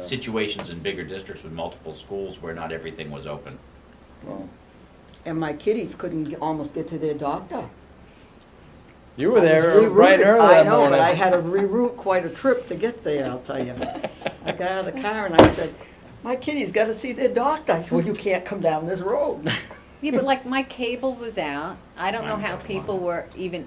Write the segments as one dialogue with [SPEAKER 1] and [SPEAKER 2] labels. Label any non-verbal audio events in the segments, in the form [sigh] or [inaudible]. [SPEAKER 1] situations in bigger districts with multiple schools where not everything was open.
[SPEAKER 2] Well,
[SPEAKER 3] And my kiddies couldn't g- almost get to their doctor.
[SPEAKER 4] You were
[SPEAKER 3] I was
[SPEAKER 4] there bright and
[SPEAKER 3] rerouted.
[SPEAKER 4] early that
[SPEAKER 3] I know,
[SPEAKER 4] morning.
[SPEAKER 3] but I had to reroute quite a trip to get there, I'll tell you. I got out of the car and I said, my kiddies got to see their doctor. I said, well, you can't come down this road.
[SPEAKER 5] Yeah, but like my cable was out. I don't know
[SPEAKER 1] Mine was
[SPEAKER 5] how
[SPEAKER 1] out
[SPEAKER 5] people were even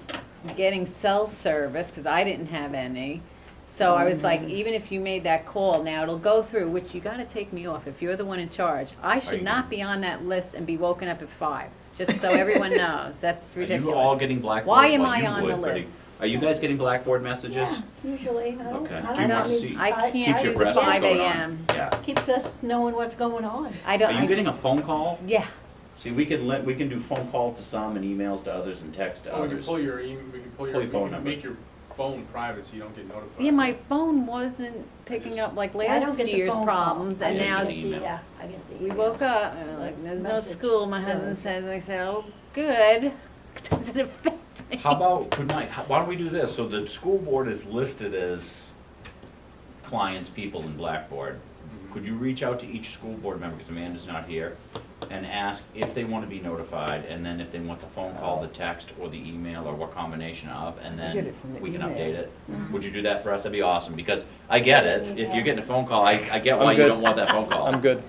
[SPEAKER 5] getting cell service because I didn't have any. So I was like, even if you made that call, now it'll go through, which you gotta take me off if you're the one in charge. I
[SPEAKER 1] you-
[SPEAKER 5] should not be on that list and be woken up at five, just
[SPEAKER 1] [laughs]
[SPEAKER 5] so everyone knows. That's
[SPEAKER 1] Are you all
[SPEAKER 5] ridiculous.
[SPEAKER 1] getting Blackboard?
[SPEAKER 5] Why am
[SPEAKER 1] Well,
[SPEAKER 5] I
[SPEAKER 1] you
[SPEAKER 5] on the
[SPEAKER 1] would, but are-
[SPEAKER 5] list?
[SPEAKER 1] Are you guys getting Blackboard messages?
[SPEAKER 6] Usually, I don't,
[SPEAKER 1] Okay.
[SPEAKER 6] I
[SPEAKER 1] Do you
[SPEAKER 6] don't.
[SPEAKER 1] want to
[SPEAKER 6] need-
[SPEAKER 1] see-
[SPEAKER 5] I can't
[SPEAKER 1] Keeps
[SPEAKER 5] do
[SPEAKER 1] your
[SPEAKER 6] I-
[SPEAKER 5] the
[SPEAKER 1] breath
[SPEAKER 5] five
[SPEAKER 1] going on.
[SPEAKER 5] AM.
[SPEAKER 1] Yeah.
[SPEAKER 6] Keeps us knowing what's going on.
[SPEAKER 5] I don't.
[SPEAKER 1] Are you
[SPEAKER 5] I-
[SPEAKER 1] getting a phone call?
[SPEAKER 5] Yeah,
[SPEAKER 1] See, we can let, we can do phone calls to some and emails to others and text to
[SPEAKER 7] Oh, we can
[SPEAKER 1] others.
[SPEAKER 7] pull your email, we can pull your,
[SPEAKER 1] Pull your
[SPEAKER 7] we
[SPEAKER 1] phone
[SPEAKER 7] can
[SPEAKER 1] number.
[SPEAKER 7] make your phone private so you don't get notified.
[SPEAKER 5] yeah, my phone wasn't picking up like
[SPEAKER 6] I don't
[SPEAKER 5] last
[SPEAKER 6] get the
[SPEAKER 5] year's
[SPEAKER 6] phone call.
[SPEAKER 5] problems
[SPEAKER 6] I
[SPEAKER 5] and
[SPEAKER 6] just
[SPEAKER 5] now
[SPEAKER 6] get the,
[SPEAKER 1] Email.
[SPEAKER 6] uh, I get the
[SPEAKER 5] We
[SPEAKER 6] email.
[SPEAKER 5] woke up, and we're like, there's no
[SPEAKER 6] Message.
[SPEAKER 5] school, my husband says, I said, oh, good, [laughs] doesn't affect me.
[SPEAKER 1] How about tonight, how- why don't we do this? So the school board is listed as clients, people in Blackboard.
[SPEAKER 4] Mm-hmm.
[SPEAKER 1] Could you reach out to each school board member, because Amanda's not here, and ask if they want to be notified, and then if they want the phone call, the text, or the email, or what combination of, and
[SPEAKER 3] Get
[SPEAKER 1] then
[SPEAKER 3] it from the
[SPEAKER 1] we can
[SPEAKER 3] email.
[SPEAKER 1] update it? Would you do that for us? That'd be awesome, because I get it, if you're getting a phone call, I, I get why
[SPEAKER 4] I'm
[SPEAKER 1] you
[SPEAKER 4] good.
[SPEAKER 1] don't want that phone
[SPEAKER 4] I'm
[SPEAKER 1] call.
[SPEAKER 4] good.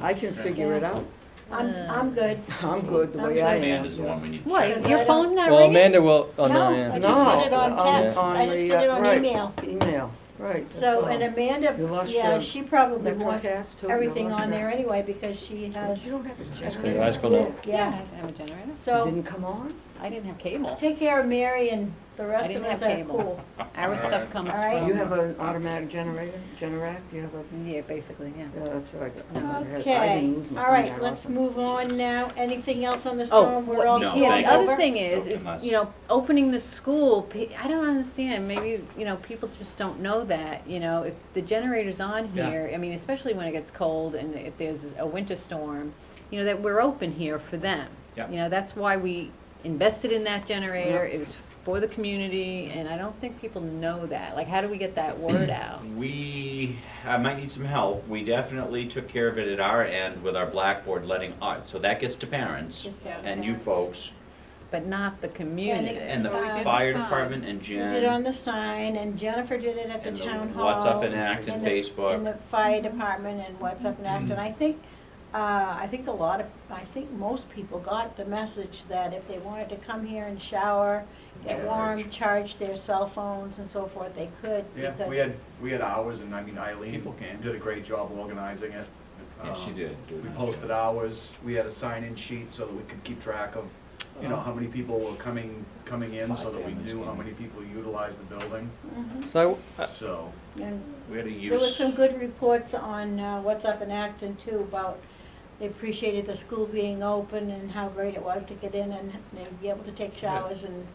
[SPEAKER 3] I can figure it out.
[SPEAKER 6] I'm, I'm good.
[SPEAKER 3] I'm good the way I am.
[SPEAKER 1] Amanda's the one we need to check.
[SPEAKER 6] Because
[SPEAKER 5] What,
[SPEAKER 6] I
[SPEAKER 5] your
[SPEAKER 6] don't-
[SPEAKER 5] phone's not
[SPEAKER 4] Well,
[SPEAKER 5] ringing?
[SPEAKER 4] Amanda will, oh, no, Oh,
[SPEAKER 6] No, I
[SPEAKER 4] yeah.
[SPEAKER 6] just
[SPEAKER 3] No,
[SPEAKER 6] get it on
[SPEAKER 4] on-
[SPEAKER 6] text, I
[SPEAKER 3] the,
[SPEAKER 6] just get it
[SPEAKER 3] uh,
[SPEAKER 6] on
[SPEAKER 3] right.
[SPEAKER 6] email.
[SPEAKER 3] Email, right.
[SPEAKER 6] So,
[SPEAKER 3] that's
[SPEAKER 6] and
[SPEAKER 3] all. You
[SPEAKER 6] Amanda,
[SPEAKER 3] lost
[SPEAKER 6] yeah,
[SPEAKER 3] your
[SPEAKER 6] she probably
[SPEAKER 3] Metro
[SPEAKER 6] wants
[SPEAKER 3] cast, too? You
[SPEAKER 6] everything
[SPEAKER 3] lost
[SPEAKER 6] on
[SPEAKER 3] your-
[SPEAKER 6] there anyway because she has.
[SPEAKER 3] You don't have to check.
[SPEAKER 4] Your eyes go down.
[SPEAKER 6] Yeah,
[SPEAKER 5] I have a generator,
[SPEAKER 6] so
[SPEAKER 3] Didn't come on?
[SPEAKER 5] I didn't have cable,
[SPEAKER 6] take care of Mary and the rest
[SPEAKER 5] didn't
[SPEAKER 6] of us
[SPEAKER 5] have
[SPEAKER 6] are
[SPEAKER 5] cable.
[SPEAKER 6] cool.
[SPEAKER 5] our stuff comes
[SPEAKER 6] All right.
[SPEAKER 3] You
[SPEAKER 5] from,
[SPEAKER 3] have an automatic generator, Generac, you have a,
[SPEAKER 5] yeah, basically, yeah.
[SPEAKER 3] yeah, that's what I got. I didn't
[SPEAKER 6] Okay,
[SPEAKER 3] lose my
[SPEAKER 6] all right,
[SPEAKER 3] phone.
[SPEAKER 6] let's move on now. Anything else on the
[SPEAKER 5] Oh,
[SPEAKER 6] storm? We're all
[SPEAKER 1] No,
[SPEAKER 5] what- yeah,
[SPEAKER 1] thank
[SPEAKER 5] the
[SPEAKER 1] you.
[SPEAKER 5] other thing is,
[SPEAKER 1] Open
[SPEAKER 5] is,
[SPEAKER 1] us.
[SPEAKER 5] you know, opening the school, pe- I don't understand, maybe, you know, people just don't know that, you know, if the generator's on
[SPEAKER 1] Yeah.
[SPEAKER 5] here, I mean, especially when it gets cold and if there's a winter storm, you know, that we're open here for them.
[SPEAKER 1] Yeah.
[SPEAKER 5] You know, that's why we invested in that generator, it was for the community, and I don't think people know that, like, how do we get that word out?
[SPEAKER 1] We, I might need some help. We definitely took care of it at our end with our Blackboard letting, uh, so that gets to parents
[SPEAKER 6] Gets to
[SPEAKER 1] and you
[SPEAKER 6] parents.
[SPEAKER 1] folks
[SPEAKER 5] But not the community.
[SPEAKER 1] and the
[SPEAKER 6] Well, we did the
[SPEAKER 1] fire
[SPEAKER 8] sign.
[SPEAKER 1] department and
[SPEAKER 6] We
[SPEAKER 1] Jen.
[SPEAKER 6] did um, on the sign and Jennifer did it at the
[SPEAKER 1] and the
[SPEAKER 6] town hall.
[SPEAKER 1] What's Up in Acton
[SPEAKER 6] and the-
[SPEAKER 1] Facebook.
[SPEAKER 6] And the fire department and What's Up in Acton. I think, uh, I think a lot of, I think most people got the message that if they wanted to come here and shower, get warm, charge their cell phones and so forth, they could.
[SPEAKER 9] Yeah,
[SPEAKER 6] because-
[SPEAKER 9] we had, we had hours, and I mean Eileen
[SPEAKER 1] People can.
[SPEAKER 9] did a great job organizing it.
[SPEAKER 1] Yeah, she
[SPEAKER 9] Um,
[SPEAKER 1] did. do a
[SPEAKER 9] We
[SPEAKER 1] nice
[SPEAKER 9] posted
[SPEAKER 1] job.
[SPEAKER 9] hours, we had a sign-in sheet so that we could keep track of, you know, how many people were coming, coming in, so
[SPEAKER 1] Uh-huh. Five
[SPEAKER 9] that we
[SPEAKER 1] families
[SPEAKER 9] knew how
[SPEAKER 1] came.
[SPEAKER 9] many people utilized the building,
[SPEAKER 6] Mhm.
[SPEAKER 4] So I,
[SPEAKER 9] so.
[SPEAKER 6] And
[SPEAKER 1] We had a
[SPEAKER 6] There was
[SPEAKER 1] use,
[SPEAKER 6] some good reports on uh, What's Up in Acton too about they appreciated the school being open and how great it was to get in and and be able to take showers and,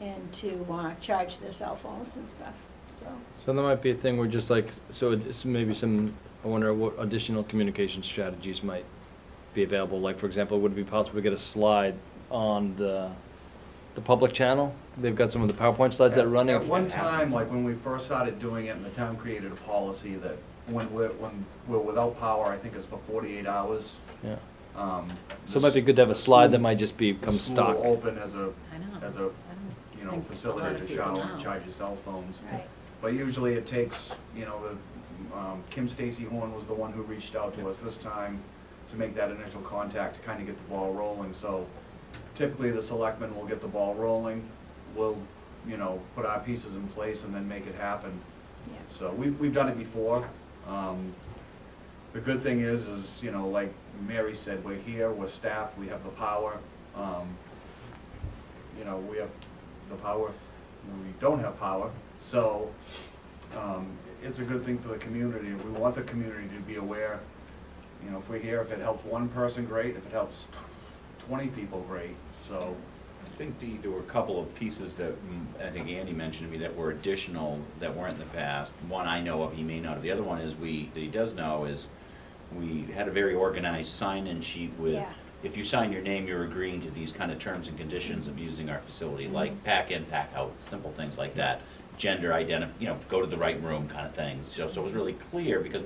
[SPEAKER 6] and to uh, charge their cell phones and stuff, so.
[SPEAKER 4] So there might be a thing where just like, so it's maybe some, I wonder what additional communication strategies might be available. Like, for example, would it be possible to get a slide on the, the public channel? They've got some of the PowerPoint slides that are running.
[SPEAKER 9] At one time, like when we first started doing it, and the town created a policy that when we're, when we're without power, I think it's for forty-eight hours.
[SPEAKER 4] Yeah.
[SPEAKER 9] um,
[SPEAKER 4] So it might be good to have a slide that might just become
[SPEAKER 9] the school
[SPEAKER 4] stock.
[SPEAKER 9] Open as a,
[SPEAKER 5] I know.
[SPEAKER 9] as a,
[SPEAKER 5] I don't
[SPEAKER 9] you know,
[SPEAKER 5] think a lot
[SPEAKER 9] facility
[SPEAKER 5] of
[SPEAKER 9] to
[SPEAKER 5] people
[SPEAKER 9] shower and
[SPEAKER 5] know.
[SPEAKER 9] charge your cell phones.
[SPEAKER 6] Right.
[SPEAKER 9] But usually it takes, you know, the, um, Kim Stacy Horn was the one who reached out to us this time to make that initial contact, to kind of get the ball rolling, so typically the selectmen will get the ball rolling, we'll, you know, put our pieces in place and then make it happen.
[SPEAKER 6] Yeah.
[SPEAKER 9] So we've, we've done it before. Um, the good thing is, is, you know, like Mary said, we're here, we're staffed, we have the power. Um, you know, we have the power, if we don't have power, so, um, it's a good thing for the community. We want the community to be aware, you know, if we're here, if it helps one person, great, if it helps twenty people, great, so.
[SPEAKER 1] I think Dee, there were a couple of pieces that, mm, I think Andy mentioned to me that were additional, that weren't in the past. One I know of, he may not have. The other one is we, that he does know is, we had a very organized sign-in sheet with,
[SPEAKER 6] Yeah.
[SPEAKER 1] if you sign your name, you're agreeing to these kind of terms and conditions of using our facility, like pack in, pack out, simple things like that. Gender identif, you know, go to the right room kind of things. So, so it was really clear because